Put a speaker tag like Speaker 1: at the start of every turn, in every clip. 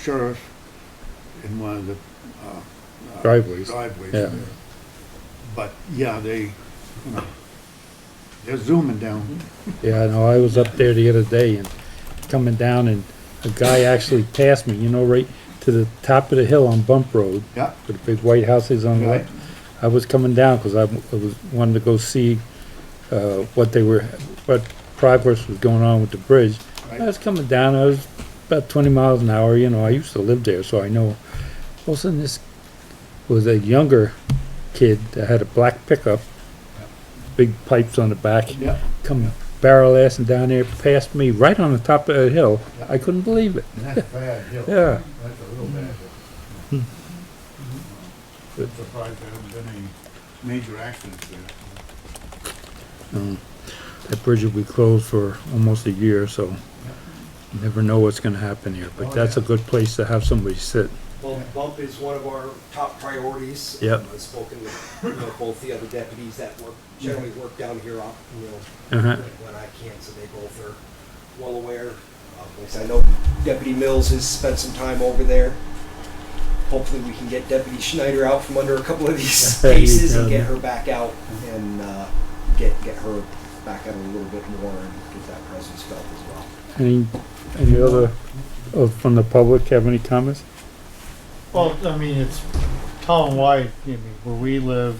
Speaker 1: sheriff in one of the, uh, uh,
Speaker 2: Driveways.
Speaker 1: Driveways
Speaker 2: Yeah.
Speaker 1: there. But, yeah, they, you know, they're zooming down.
Speaker 2: Yeah, no, I was up there the other day and coming down and a guy actually passed me, you know, right to the top of the hill on Bump Road.
Speaker 1: Yeah.
Speaker 2: With the big white houses on the left. I was coming down because I w- I was, wanted to go see, uh, what they were, what progress was going on with the bridge. I
Speaker 1: Right.
Speaker 2: was coming down, I was about twenty miles an hour, you know, I used to live there, so I know. All of a sudden, this was a younger kid that had a black pickup, big pipes on the back
Speaker 1: Yeah,
Speaker 2: come barrel assing down there past me, right on the top of the hill. I couldn't believe it.
Speaker 3: That's bad, Hill.
Speaker 2: Yeah.
Speaker 3: That's a real bad hill.
Speaker 1: Hmm.
Speaker 2: Good.
Speaker 3: Surprised there haven't been any major accidents there.
Speaker 2: That bridge will be closed for almost a year, so you never know what's gonna happen here. But
Speaker 3: Oh,
Speaker 2: that's a
Speaker 3: yeah.
Speaker 2: good place to have somebody sit.
Speaker 4: Bump, bump is one of our top priorities.
Speaker 2: Yep.
Speaker 4: Um, I've spoken with, you know, both the other deputies that work, generally work down here, uh, you know,
Speaker 2: Uh-huh.
Speaker 4: when I can, so they both are well aware. Um, Like I said, I know Deputy Mills has spent some time over there. Hopefully, we can get Deputy Schneider out from under a couple of these
Speaker 2: Yeah, you
Speaker 4: cases and
Speaker 2: can.
Speaker 4: get her back out and, uh, get, get her back out a little bit more and get that presence felt as well.
Speaker 2: Any, any other, uh, from the public, have any comments?
Speaker 5: Well, I mean, it's town-wide, I mean, where we live,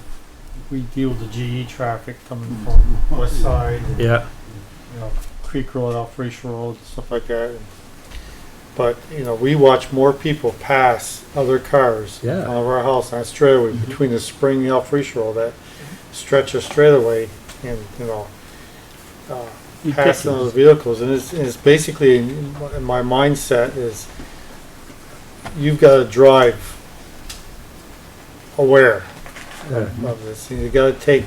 Speaker 5: we deal with the GE traffic coming from west side, and,
Speaker 2: Yeah,
Speaker 5: you know, Creek Road, off Racial Road, stuff like that. and- But, you know, we watch more people pass other cars in
Speaker 2: Yeah. Mm-hmm.
Speaker 5: front of our house on straightaway between the spring and off Racial Road, that stretch of straightaway and, you know, uh,
Speaker 2: You
Speaker 5: passing
Speaker 2: pick it.
Speaker 5: those vehicles, and it's, it's basically, in my- in my mindset is, you've gotta drive aware
Speaker 2: Yeah.
Speaker 5: of of this, you gotta take,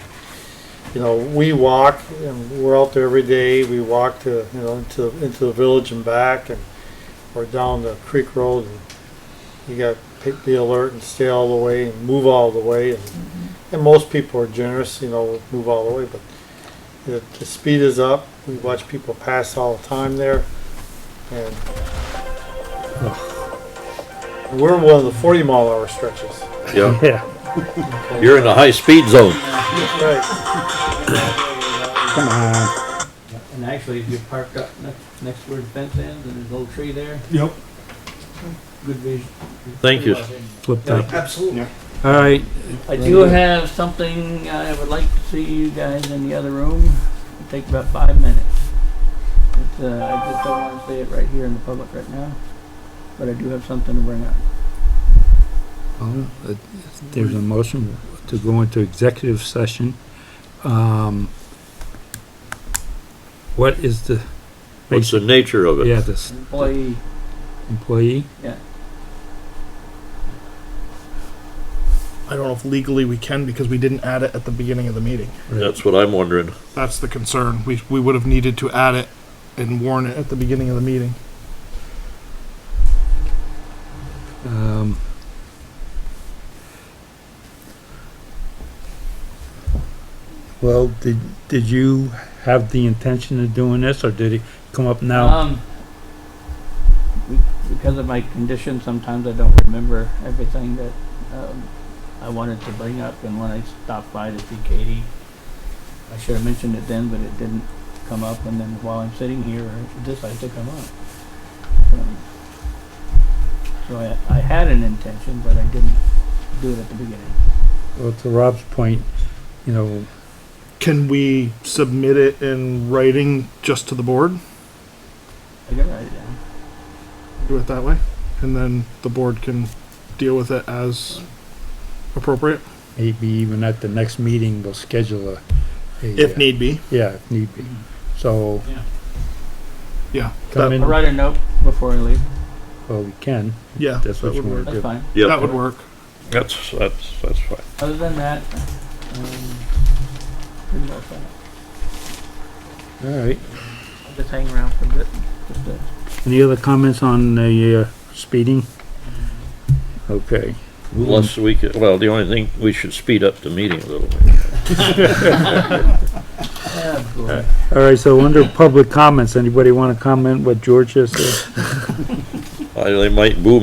Speaker 5: you know, we walk, and we're out there every day, we walk to, you know, into, into the village and back, and, or down the creek road, and you gotta pick- be alert and stay all the way, and move all the way, and, and most people are generous, you know, move all the way, but the, the speed is up. We watch people pass all the time there. And we're in one of the 40 mile hour stretches.
Speaker 6: Yeah,
Speaker 2: yeah,
Speaker 6: you're in the high-speed zone.
Speaker 5: Right.
Speaker 2: come on.
Speaker 7: And actually, if you park up next, next word fence ends and there's a little tree there,
Speaker 1: Yep.
Speaker 7: good vision.
Speaker 6: Thank you.
Speaker 2: Flipped up.
Speaker 4: Absolutely.
Speaker 2: All right,
Speaker 7: I do have something I would like to see you guys in the other room. It'll take about five minutes. It's, uh, I just don't wanna say it right here in the public right now, but I do have something to bring up.
Speaker 2: Well, uh, There's a motion to go into executive session. Um, What is the?
Speaker 6: What's the nature of
Speaker 2: Yeah,
Speaker 6: it?
Speaker 2: this
Speaker 7: Employee,
Speaker 2: employee?
Speaker 8: I don't know if legally we can because we didn't add it at the beginning of the meeting.
Speaker 6: That's what I'm wondering.
Speaker 8: That's the concern. We, we would have needed to add it and warn it at the beginning of the meeting.
Speaker 2: Um, Well, did, did you have the intention of doing this, or did it come up
Speaker 8: Uh,
Speaker 2: now?
Speaker 7: um, be- because of my condition, sometimes I don't remember everything that, um, I wanted to bring up, and when I stopped by to see Katie, I should have mentioned it then, but it didn't come up, and then while I'm sitting here, it decided to come up. Um, So I, I had an intention, but I didn't do it at the beginning.
Speaker 2: Well, to Rob's point, you know,
Speaker 8: Can we submit it in writing just to the board?
Speaker 7: I gotta write it down.
Speaker 8: Do it that way? And then the board can deal with it as appropriate,
Speaker 2: maybe even at the next meeting, we'll schedule a. a,
Speaker 8: if
Speaker 2: uh,
Speaker 8: need be.
Speaker 2: Yeah, if need be. So
Speaker 8: Yeah.
Speaker 2: come
Speaker 8: that-
Speaker 2: in,
Speaker 7: I'll
Speaker 2: well,
Speaker 7: write a note before I leave,
Speaker 2: we can.
Speaker 8: Yeah.
Speaker 2: That's what
Speaker 8: that
Speaker 2: you
Speaker 8: would
Speaker 2: want to
Speaker 8: work.
Speaker 2: do.
Speaker 7: that's fine.
Speaker 8: That
Speaker 6: Yep,
Speaker 8: would work.
Speaker 6: that's, that's, that's fine.
Speaker 7: Other than that, um, pretty well set.
Speaker 2: All right.
Speaker 7: I'll just hang around for a bit, just to
Speaker 2: Any other comments on the uh, speeding?
Speaker 8: Mm-hmm.
Speaker 2: Okay.
Speaker 6: Unless we could, well, the only thing, we should speed up the meeting a little bit.
Speaker 7: Oh, boy.
Speaker 2: All right, so under public comments, anybody want to comment what George just said?
Speaker 6: Uh, They might boo